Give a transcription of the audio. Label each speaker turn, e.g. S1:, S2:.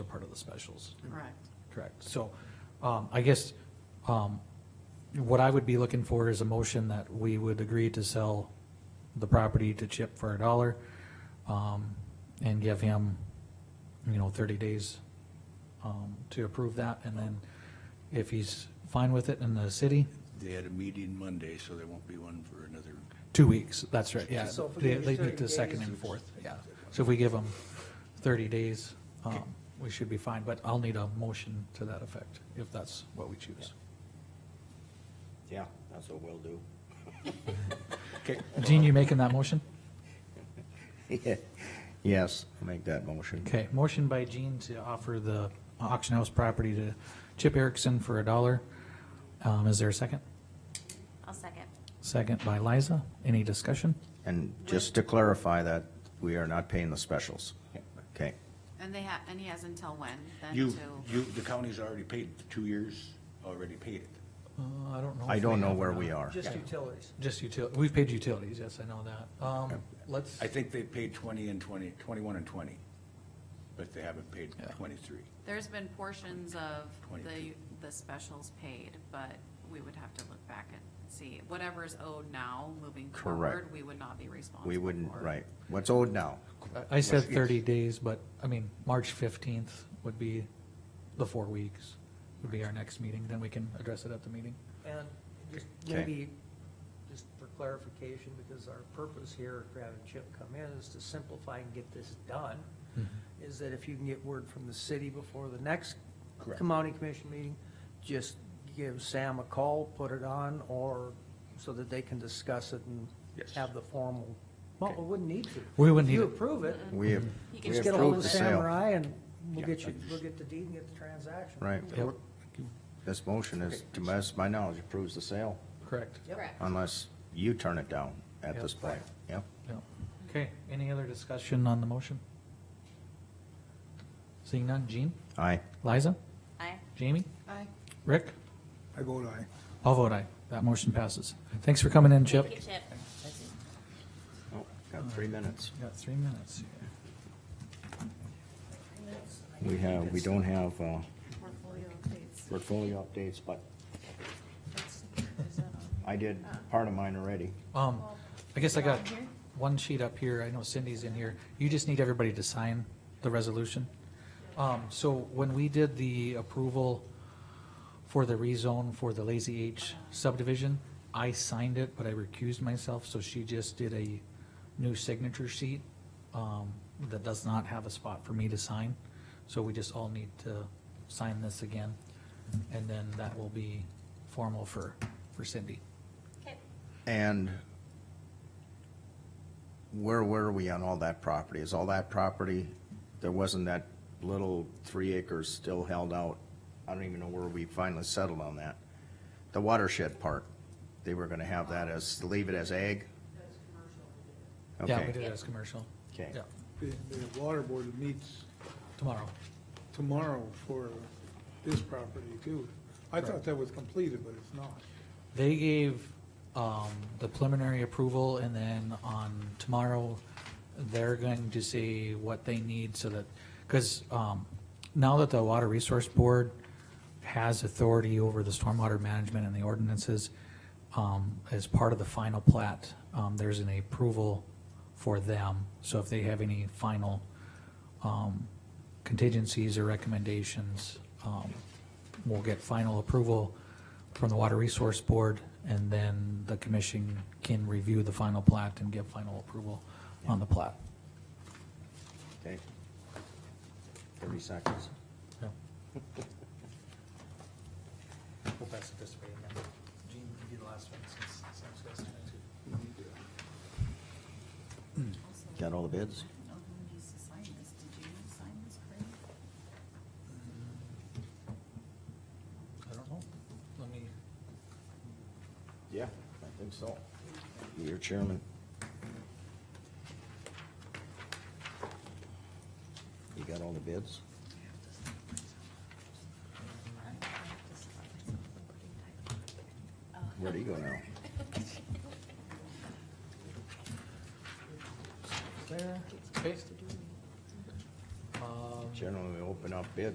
S1: part of the specials.
S2: Right.
S1: Correct. So, um, I guess, um, what I would be looking for is a motion that we would agree to sell the property to Chip for a dollar, um, and give him, you know, thirty days, um, to approve that, and then if he's fine with it in the city,
S3: They had a meeting Monday, so there won't be one for another.
S1: two weeks, that's right, yeah.
S4: So if we
S1: They,
S4: give
S1: they
S4: you
S1: need
S4: 30
S1: the second
S4: days,
S1: and
S4: it's-
S1: fourth, yeah. So if we give them thirty days, um, we should be fine, but I'll need a motion to that effect, if that's what we choose.
S4: Yeah, that's what we'll do.
S1: Gene, you making that motion?
S4: Yes, I'll make that motion.
S1: Okay, motion by Gene to offer the auction house property to Chip Erickson for a dollar. Um, is there a second?
S5: I'll second.
S1: Second by Liza. Any discussion?
S6: And just to clarify that, we are not paying the specials. Okay,
S2: And they ha, and he has until when, then
S3: You,
S2: to,
S3: you, the county's already paid, two years already paid it.
S1: Uh, I don't know.
S6: I
S1: if
S6: don't
S1: they
S6: know
S1: have
S6: where
S1: or
S6: we
S1: not.
S6: are.
S4: Just utilities.
S1: Just util, we've paid utilities, yes, I know that. Um, let's,
S3: I think they paid twenty and twenty, twenty-one and twenty, but they haven't paid
S1: Yeah.
S3: twenty-three.
S2: there's been portions of the,
S3: Twenty-two.
S2: the specials paid, but we would have to look back and see. Whatever is owed now, moving
S6: Correct.
S2: forward, we would not be responsible
S6: we wouldn't,
S2: for.
S6: right. What's owed now?
S1: I said thirty days, but, I mean, March fifteenth would be the four weeks, would be our next meeting, then we can address it at the meeting.
S4: And just
S6: Okay.
S4: maybe, just for clarification, because our purpose here, at having Chip come in, is to simplify and get this done, is that if you can get word from the city before the next
S3: Correct.
S4: county commission meeting, just give Sam a call, put it on, or, so that they can discuss it and
S3: Yes.
S4: have the formal, well, we wouldn't need to.
S1: We wouldn't
S4: If You
S1: need it.
S4: approve it,
S6: We have,
S2: You can
S6: we
S4: just get a hold of
S6: approved the sale.
S4: Samurai and we'll
S3: Yeah.
S4: get you, we'll get the deed and get the transaction.
S6: Right.
S1: Yep,
S6: This motion is, to my, my knowledge, approves the sale
S1: correct.
S4: Yep.
S5: Correct.
S6: unless you turn it down at this
S1: Yep.
S6: point. Yep.
S1: Yep. Okay, any other discussion on the motion? Seeing none, Jean,
S6: Aye.
S1: Liza,
S5: Aye.
S1: Jamie,
S2: Aye.
S1: Rick?
S7: I vote aye.
S1: I'll vote aye. That motion passes. Thanks for coming in, Chip.
S5: Thank you, Chip.
S6: Oh, Got three minutes.
S1: Got three minutes.
S6: We have, we don't have uh,
S2: Portfolio updates.
S6: portfolio updates, but
S2: That's- is that on?
S6: I did part of mine already.
S1: Um, I guess I got
S2: Is it on here?
S1: one sheet up here. I know Cindy's in here. You just need everybody to sign the resolution. Um, so when we did the approval for the rezone for the Lazy H subdivision, I signed it, but I recused myself, so she just did a new signature sheet, um, that does not have a spot for me to sign. So we just all need to sign this again, and then that will be formal for, for Cindy.
S5: Okay.
S6: And where were we on all that property? Is all that property, there wasn't that little three acres still held out? I don't even know where we finally settled on that. The watershed part, they were gonna have that as, leave it as ag?
S1: Yeah, we
S6: Okay,
S1: did it as commercial.
S6: Okay.
S1: Yeah,
S7: The, the water board meets
S1: tomorrow.
S7: tomorrow for this property too. I thought that was completed, but it's not.
S1: They gave, um, the preliminary approval and then on tomorrow, they're going to see what they need so that, cause, um, now that the Water Resource Board has authority over the stormwater management and the ordinances, um, as part of the final plat, um, there's an approval for them. So if they have any final, um, contingencies or recommendations. um, We'll get final approval from the Water Resource Board, and then the commission can review the final plat and give final approval on the plat.
S6: okay. Thirty seconds.
S1: Yeah. We'll pass it this way again. Gene, you do the last one since Sam's got to.
S6: Got all the bids?
S2: I don't know who needs to sign this. Did you sign this, Craig?
S1: I don't know. Let me,
S6: Yeah, I think so. Your chairman. You got all the bids? Where do you go now?
S1: there. Okay. Um,
S6: generally open up bids